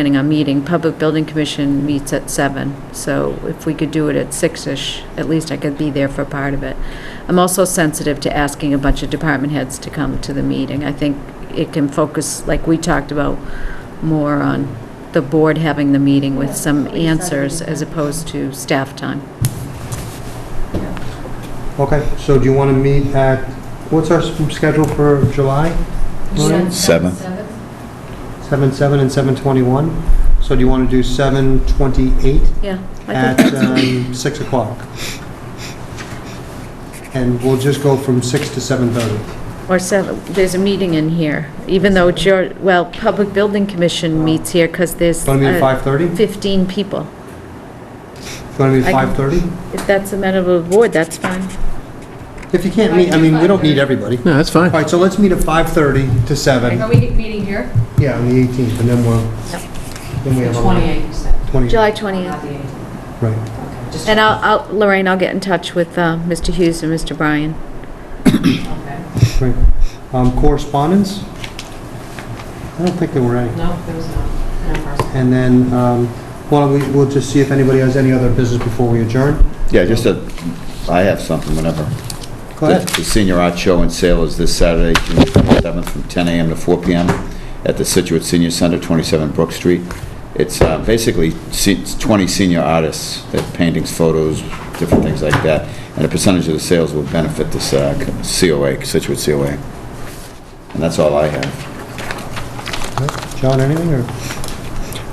planning on meeting. Public Building Commission meets at seven, so if we could do it at six-ish, at least I could be there for part of it. I'm also sensitive to asking a bunch of department heads to come to the meeting. I think it can focus, like we talked about, more on the board having the meeting with some answers as opposed to staff time. Okay, so do you want to meet at, what's our s- schedule for July? Lorraine? Seven. Seven, seven, and seven twenty-one. So do you want to do seven twenty-eight Yeah. I at think- um, six o'clock? And we'll just go from six to seven thirty. Or seven, there's a meeting in here, even though it's your, well, Public Building Commission meets here because there's Want to meet at uh, five thirty? You 15 people. want to meet at I can- five thirty? If that's amenable to the board, that's fine. If you can't meet, I mean, we don't need everybody. No, that's All fine. right, so let's meet at five thirty to seven. Are we meeting here? Yeah, on the eighteenth, and then we'll, then we have. a- you said, Twenty. July 20th. the 8th. Right. Okay, just- And I'll, I'll- Lorraine, I'll get in touch with uh, Mr. Hughes and Mr. Bryan. okay. Right. Um, Correspondence? I don't think there were any. No, there was no, no person. And then, um, well, we- we'll just see if anybody has any other business before we adjourn. Yeah, just a, I have something, whenever. Go ahead. The Senior Art Show and Sale is this Saturday, June 27th, from 10 a.m. to 4 p.m. at the Situate Senior Center, 27 Brook Street. It's uh, basically se- it's 20 senior artists, their paintings, photos, different things like that, and a percentage of the sales will benefit this uh, COA, Situate COA. And that's all I have. John, anything, or?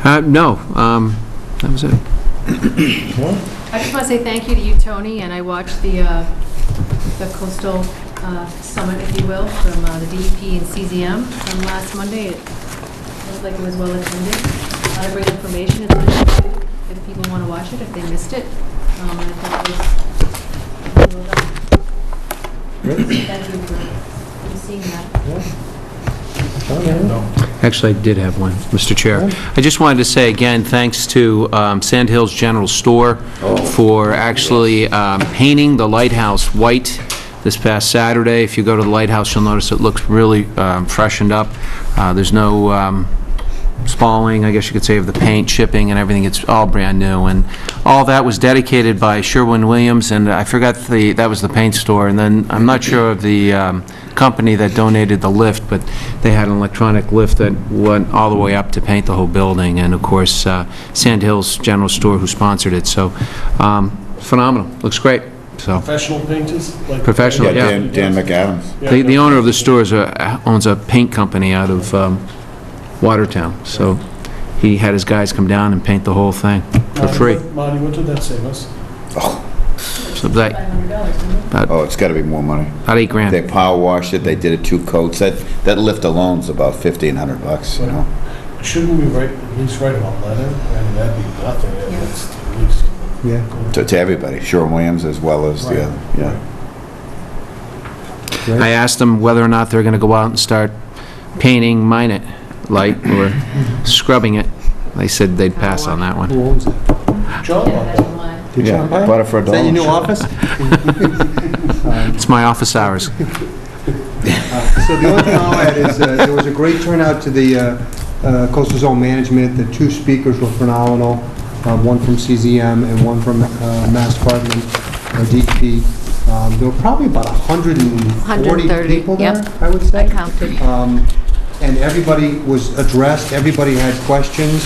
Uh, No, um, that was it. I just want to say thank you to you, Tony, and I watched the, uh, the coastal uh, summit, if you will, from uh, the DEP and CZM from last Monday. It looked like it was well attended. A lot of great information, it's on YouTube if people want to watch it, if they missed it. Um, and I thought it was well done. Thank you for for seeing that. John, anything? Actually, I did have one, Mr. Chair. I just wanted to say again, thanks to um, Sand Hills General Store for actually um, painting the lighthouse white this past Saturday. If you go to the lighthouse, you'll notice it looks really um, freshened up. Uh, There's no um, spalling, I guess you could say, of the paint, shipping, and everything. It's all brand new. And all that was dedicated by Sherwin-Williams, and I forgot the, that was the paint store. And then, I'm not sure of the um, company that donated the lift, but they had an electronic lift that went all the way up to paint the whole building. And of course, uh, Sand Hills General Store who sponsored it, so um, phenomenal. Looks great, so. Professional painters? like- Professional, yeah. Dan Dan McAdams. Yeah, The the yeah. owner of the store is a- owns a paint company out of um, Watertown, so he had his guys come down and paint the whole thing for Marty, free. what- Marty, what did that save us? So that, $500, isn't it? Oh, it's got to be more money. about eight They grand. power washed it, they did it two coats. That, that lift alone's about 1,500 bucks, you know? Shouldn't we write, at least write about letter? I mean, that'd be nothing, at Yeah. least, at least. Yeah. To, to everybody, Sherwin Williams as well as the other, yeah. I asked them whether or not they're going to go out and start painting mine it light or scrubbing it. They said they'd pass on that one. Who owns that? John, Yeah, what that's the- why. Did Yeah, John buy it? bought it for a Is that Oh, your new dollar. office? It's my office hours. Uh, So the only thing I'll add is, uh, there was a great turnout to the uh, uh, Coastal Zone Management. The two speakers were phenomenal, um, one from CZM and one from uh, Mass Department, uh, DEP. Um, There were probably about 140 130, people there, yep. I would say. I counted. Um, And everybody was addressed, everybody had questions.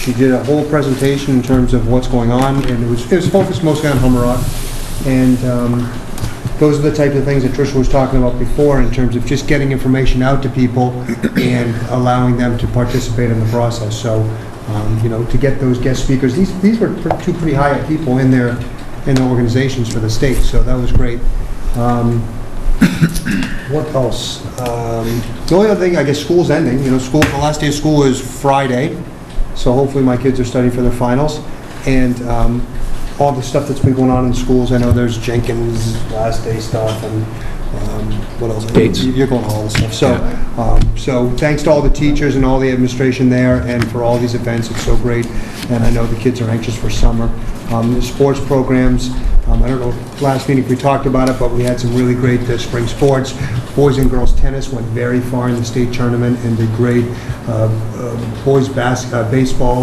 She did a whole presentation in terms of what's going on, and it was, it was focused mostly on Hummerock. And um, those are the type of things that Tricia was talking about before in terms of just getting information out to people and allowing them to participate in the process. So, um, you know, to get those guest speakers, these, these were pr- two pretty high up people in their, in their organizations for the state, so that was great. Um, what else? Um, The only other thing, I guess school's ending, you know, school, the last day of school is Friday, so hopefully my kids are studying for their finals. And um, all the stuff that's been going on in schools, I know there's Jenkins' last day stuff and um, what else? Dates. You're going all this stuff. So, um, so thanks to all the teachers and all the administration there and for all these events. It's so great. And I know the kids are anxious for summer. Um, The sports programs, um, I don't know, last meeting if we talked about it, but we had some really great uh, spring sports. Boys and girls tennis went very far in the state tournament and did great. Uh, uh, Boys bas- uh, baseball